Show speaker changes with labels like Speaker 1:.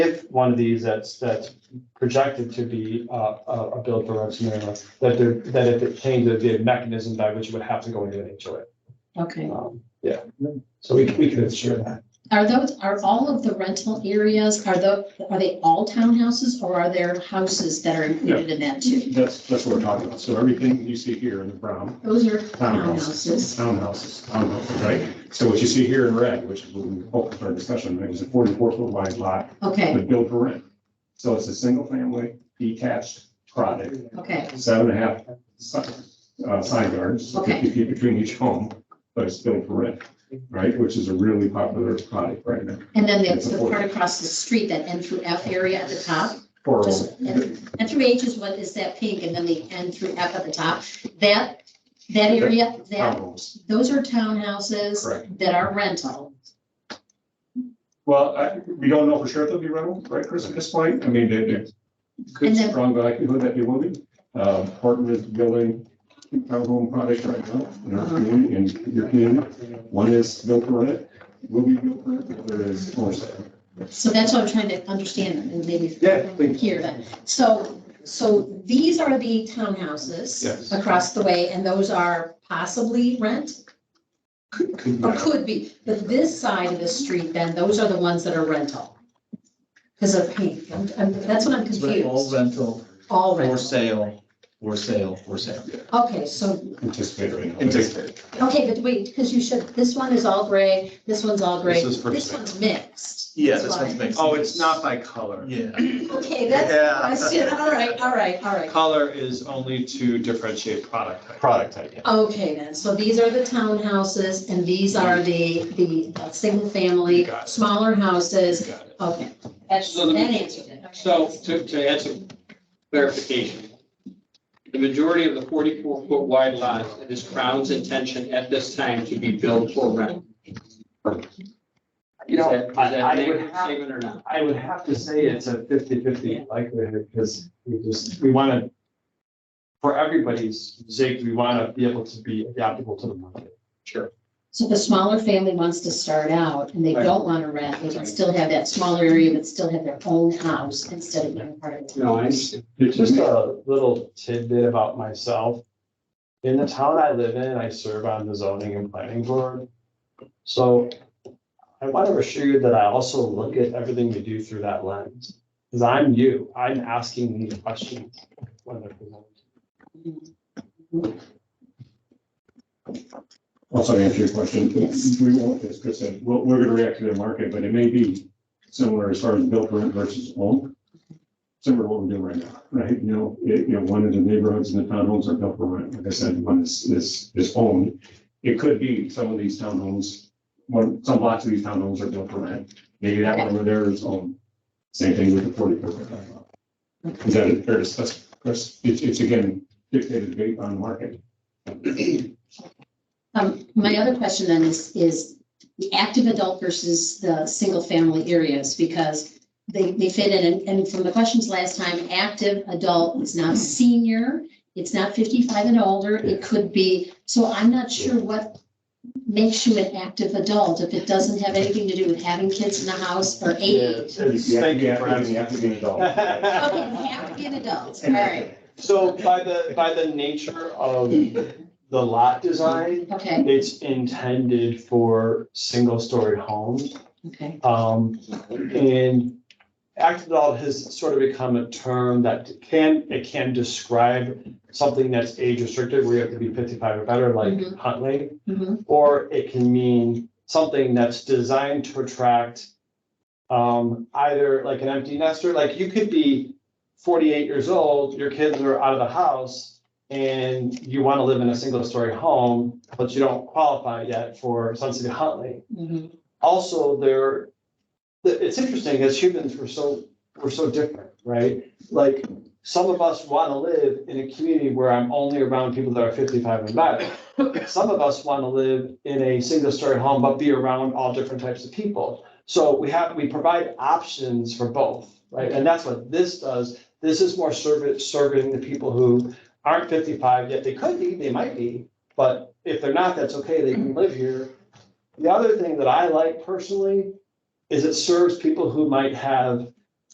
Speaker 1: with one of these that's, that's projected to be uh, a, a build for rent scenario, that there, that if it changes the mechanism by which it would have to go into an HOA.
Speaker 2: Okay,
Speaker 1: Um, Yeah, so we, we can ensure that.
Speaker 2: are those, are all of the rental areas, are the, are they all townhouses or are there houses that are included in that too?
Speaker 3: That's, that's what we're talking about. So everything you see here in the brown,
Speaker 2: Those are
Speaker 3: townhouses,
Speaker 2: townhouses.
Speaker 3: townhouses, townhouses, right? So what you see here in red, which is what we focused our discussion, it was a forty-four foot wide lot
Speaker 2: Okay,
Speaker 3: with built for rent. So it's a single family detached product,
Speaker 2: okay,
Speaker 3: seven and a half si- uh, side yards,
Speaker 2: Okay.
Speaker 3: fifty feet between each home, but it's built for rent, right? Which is a really popular product right now.
Speaker 2: and then there's the part across the street, that N through F area at the top.
Speaker 3: For,
Speaker 2: Just- N through H is what is that pink, and then the N through F at the top, that, that area, that,
Speaker 3: townhomes,
Speaker 2: those are townhouses
Speaker 3: correct.
Speaker 2: that are rental.
Speaker 3: Well, I, we don't know for sure if they'll be rental, right, Chris, at this point? I mean, there- there's good,
Speaker 2: And then-
Speaker 3: strong likelihood that they will be. Uh, Horton is building townhome product right now in our community, in your community. One is built for rent, will be built for rent, the other is for sale.
Speaker 2: So that's what I'm trying to understand, and maybe
Speaker 3: Yeah, please.
Speaker 2: here then. So, so these are the townhouses
Speaker 3: Yes.
Speaker 2: across the way, and those are possibly rent? Or could be, but this side of the street then, those are the ones that are rental? Because of pink, I'm- I'm- that's what I'm
Speaker 4: It's re- All
Speaker 2: confused.
Speaker 4: rental,
Speaker 2: All
Speaker 4: for
Speaker 2: rental.
Speaker 4: sale, for sale, for sale.
Speaker 2: Okay, so
Speaker 3: Anticipated right now.
Speaker 4: Anticipated.
Speaker 2: Okay, but wait, because you should, this one is all gray, this one's all gray,
Speaker 5: This is for
Speaker 2: this
Speaker 5: sale.
Speaker 2: one's mixed.
Speaker 4: Yeah,
Speaker 2: That's
Speaker 4: this
Speaker 2: why.
Speaker 4: one's mixed.
Speaker 5: Oh, it's not by color.
Speaker 4: Yeah.
Speaker 2: Okay, that's the
Speaker 5: Yeah.
Speaker 2: question, all right, all right, all right.
Speaker 5: Color is only to differentiate product type.
Speaker 3: Product type, yeah.
Speaker 2: Okay, then, so these are the townhouses and these are the, the uh, single family,
Speaker 5: You got it.
Speaker 2: smaller houses,
Speaker 5: Got it.
Speaker 2: okay. That's,
Speaker 6: So the-
Speaker 2: that answered it. Okay.
Speaker 6: So to, to add some clarification, the majority of the forty-four foot wide lot, it is Crown's intention at this time to be built for rent.
Speaker 1: You
Speaker 6: Is
Speaker 1: know,
Speaker 6: that, is
Speaker 1: I- I
Speaker 6: that an
Speaker 1: would
Speaker 6: accurate
Speaker 1: have-
Speaker 6: statement or not?
Speaker 1: I would have to say it's a 50-50 likelihood, because we just, we want to, for everybody's sake, we want to be able to be adaptable to the market.
Speaker 2: So the smaller family wants to start out and they
Speaker 6: Right.
Speaker 2: don't want to rent, they can still have that smaller area, but still have their own house instead of being part of the
Speaker 6: No, I understand.
Speaker 1: Just a little tidbit about myself. In the town I live in, I serve on the zoning and planning board. So I want to assure you that I also look at everything we do through that lens. Because I'm you, I'm asking these questions. when they're presented.
Speaker 3: Also to answer your question,
Speaker 2: Yes.
Speaker 3: we won't, as Chris said, we're, we're gonna react to the market, but it may be similar as far as built for rent versus owned. Similar to what we're doing right now, right? You know, it, you know, one of the neighborhoods in the townhomes are built for rent, like I said, one is, is, is owned. It could be some of these townhomes, one, some lots of these townhomes are built for rent, maybe that one over there is owned. Same thing with the forty percent. Is that a fair discussion, Chris? It's, it's again dictated based on market.
Speaker 2: Um, my other question then is, is the active adult versus the single family areas, because they, they fit in, and, and from the questions last time, active adult is not senior, it's not fifty-five and older, it could be, so I'm not sure what makes you an active adult if it doesn't have anything to do with having kids in the house or age.
Speaker 3: Thank you for having me.
Speaker 2: Okay, have to be an adult, all right,
Speaker 1: So by the, by the nature of the lot design,
Speaker 2: okay,
Speaker 1: it's intended for single-story homes.
Speaker 2: okay,
Speaker 1: Um, and active adult has sort of become a term that can, it can describe something that's age restricted, where you have to be fifty-five or better, like
Speaker 2: Mhm.
Speaker 1: Huntley.
Speaker 2: Mhm.
Speaker 1: Or it can mean something that's designed to attract um, either like an empty nester, like you could be forty-eight years old, your kids are out of the house and you want to live in a single-story home, but you don't qualify yet for Sun City Huntley
Speaker 2: mhm,
Speaker 1: also there, the- it's interesting, as humans, we're so, we're so different, right? Like, some of us want to live in a community where I'm only around people that are fifty-five and better. Some of us want to live in a single-story home, but be around all different types of people. So we have, we provide options for both, right? And that's what this does. This is more serving, serving the people who aren't fifty-five yet. They could be, they might be, but if they're not, that's okay. They can live here. The other thing that I like personally is it serves people who might have